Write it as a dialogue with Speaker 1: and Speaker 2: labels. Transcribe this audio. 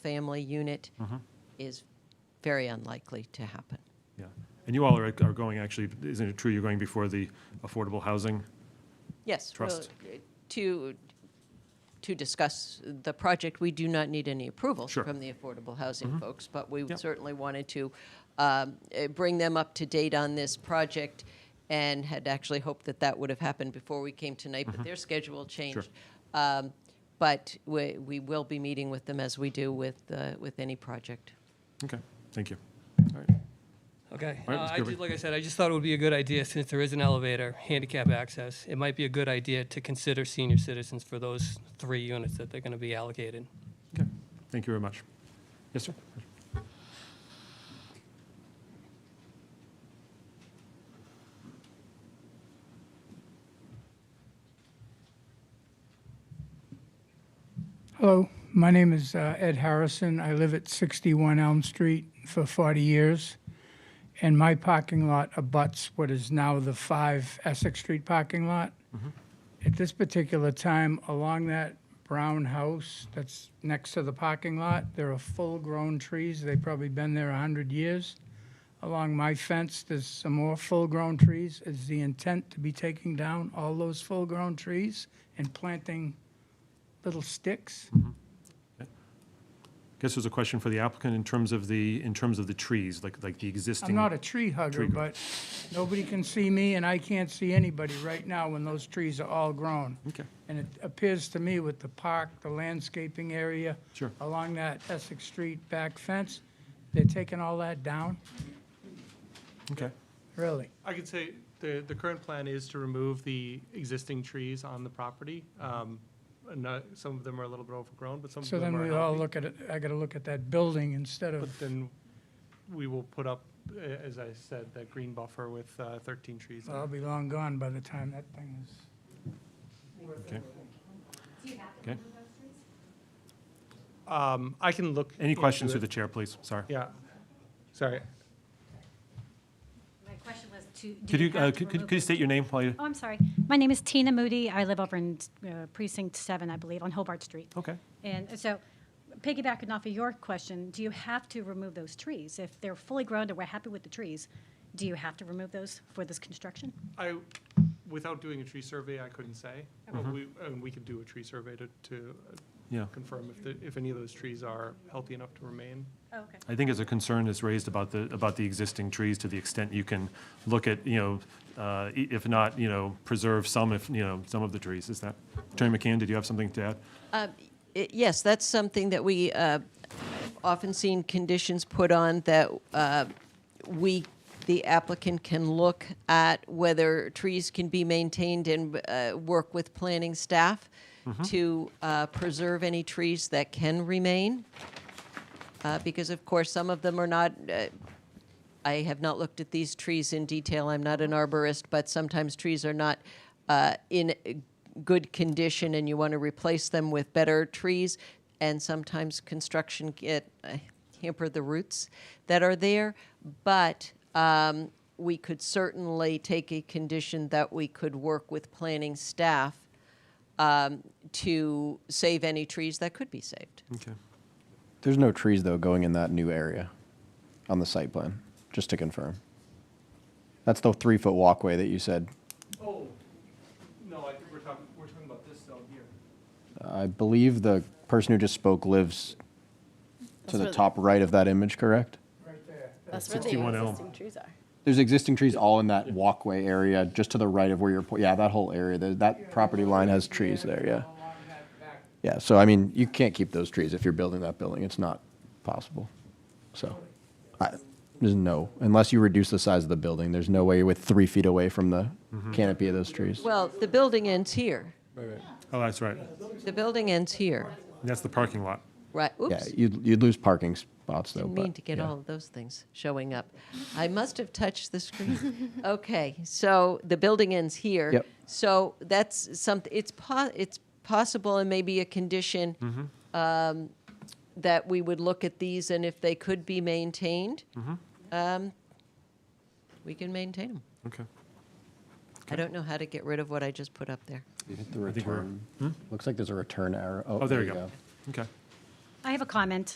Speaker 1: family unit
Speaker 2: Mm-hmm.
Speaker 1: is very unlikely to happen.
Speaker 2: Yeah. And you all are, are going, actually, isn't it true you're going before the affordable housing?
Speaker 1: Yes. well,
Speaker 2: Trust.
Speaker 1: uh, To, to discuss the project, we do not need any approval
Speaker 2: Sure. Mm-hmm.
Speaker 1: from the affordable housing folks, but we
Speaker 2: Yep.
Speaker 1: certainly wanted to um, eh, bring them up to date on this project and had actually hoped that that would have happened before we came tonight,
Speaker 2: Mm-hmm.
Speaker 1: but their schedule changed. Um, But we, we will be meeting with them as we do with, uh, with any project.
Speaker 2: Okay, thank you.
Speaker 3: Okay.
Speaker 2: All right,
Speaker 3: Uh,
Speaker 2: Mr.
Speaker 3: I
Speaker 2: Gerber.
Speaker 3: did, like I said, I just thought it would be a good idea, since there is an elevator, handicap access, it might be a good idea to consider senior citizens for those three units that they're gonna be allocated.
Speaker 2: Okay, thank you very much. Yes, sir?
Speaker 4: Hello, my name is uh, Ed Harrison. I live at 61 Elm Street for 40 years, and my parking lot abuts what is now the 5 Essex Street parking lot. At this particular time, along that brown house that's next to the parking lot, there are full-grown trees. They've probably been there 100 years. Along my fence, there's some more full-grown trees. Is the intent to be taking down all those full-grown trees and planting little sticks?
Speaker 2: Guess there's a question for the applicant in terms of the, in terms of the trees, like, like the existing.
Speaker 4: I'm not a tree hugger,
Speaker 2: Tree grow-
Speaker 4: but nobody can see me, and I can't see anybody right now when those trees are all grown.
Speaker 2: Okay,
Speaker 4: And it appears to me with the park, the landscaping area.
Speaker 2: Sure.
Speaker 4: Along that Essex Street back fence, they're taking all that down?
Speaker 2: okay,
Speaker 4: Really?
Speaker 5: I could say the, the current plan is to remove the existing trees on the property. Um, and not- Some of them are a little bit overgrown, but some of
Speaker 4: So
Speaker 5: them
Speaker 4: then
Speaker 5: are
Speaker 4: we all
Speaker 5: healthy.
Speaker 4: look at it, I gotta look at that building instead of,
Speaker 5: But then we will put up, uh, as I said, that green buffer with uh, 13 trees.
Speaker 4: well, I'll be long gone by the time that thing is.
Speaker 2: okay.
Speaker 5: Um, I can look.
Speaker 2: Any questions
Speaker 5: into
Speaker 2: through the
Speaker 5: it.
Speaker 2: chair, please? Sorry.
Speaker 5: Yeah, sorry.
Speaker 6: My question was to. do
Speaker 2: Could you,
Speaker 6: have
Speaker 2: uh,
Speaker 6: to
Speaker 2: could, could
Speaker 6: remove
Speaker 2: could you
Speaker 6: it?
Speaker 2: state your name while you,
Speaker 6: Oh, I'm sorry. My name is Tina Moody. I live over in uh, precinct seven, I believe, on Hobart Street.
Speaker 2: okay.
Speaker 6: And so piggybacking off of your question, do you have to remove those trees? If they're fully grown and we're happy with the trees, do you have to remove those for this construction?
Speaker 5: I, without doing a tree survey, I couldn't say. But
Speaker 2: Mm-hmm.
Speaker 5: we, and we could do a tree survey to, to uh,
Speaker 2: Yeah.
Speaker 5: confirm if, the- if any of those trees are healthy enough to remain.
Speaker 6: Okay.
Speaker 2: I think as a concern is raised about the, about the existing trees to the extent you can look at, you know, uh, i- if not, you know, preserve some, if, you know, some of the trees, is that? Attorney McCann, did you have something to add?
Speaker 1: Uh, i- Yes, that's something that we uh, often seen conditions put on that uh, we, the applicant can look at whether trees can be maintained and uh, work with planning staff to uh, preserve any trees that can remain. Uh, Because of course, some of them are not, uh, I have not looked at these trees in detail. I'm not an arborist, but sometimes trees are not uh, in good condition, and you want to replace them with better trees. And sometimes construction get uh, hamper the roots that are there. But um, we could certainly take a condition that we could work with planning staff um, to save any trees that could be saved.
Speaker 2: Okay.
Speaker 7: There's no trees though going in that new area on the site plan, just to confirm. That's the three foot walkway that you said.
Speaker 5: Oh, no, I think we're talking, we're talking about this zone here.
Speaker 7: I believe the person who just spoke lives to the top right of that image, correct?
Speaker 4: Right there.
Speaker 8: That's where the
Speaker 2: 61 Elm.
Speaker 8: existing trees are.
Speaker 7: There's existing trees all in that walkway area, just to the right of where you're, po- yeah, that whole area, there- that property line has trees there, yeah.
Speaker 4: Along that back
Speaker 7: Yeah, so I mean, you can't keep those trees if you're building that building. It's not possible. So, I, there's no, unless you reduce the size of the building, there's no way you're with three feet away from the canopy of those trees.
Speaker 1: Well, the building ends here.
Speaker 2: Oh, that's right.
Speaker 1: The building ends here.
Speaker 2: That's the parking lot.
Speaker 1: Right. Oops.
Speaker 7: Yeah, you'd, you'd lose parking spots though,
Speaker 1: Didn't
Speaker 7: but.
Speaker 1: mean to get
Speaker 7: yeah.
Speaker 1: all of those things showing up. I must have touched the screen. okay, so the building ends here.
Speaker 7: Yep.
Speaker 1: So that's something. It's po- it's possible, and maybe a condition um,
Speaker 7: Mm-hmm.
Speaker 1: that we would look at these, and if they could be maintained,
Speaker 7: Mm-hmm.
Speaker 1: um, we can maintain them.
Speaker 2: Okay.
Speaker 1: I don't know how to get rid of what I just put up there.
Speaker 7: You hit the
Speaker 2: think we're-
Speaker 7: return. Looks like there's a return arrow.
Speaker 2: Oh, there you go. Okay.
Speaker 6: I have a comment.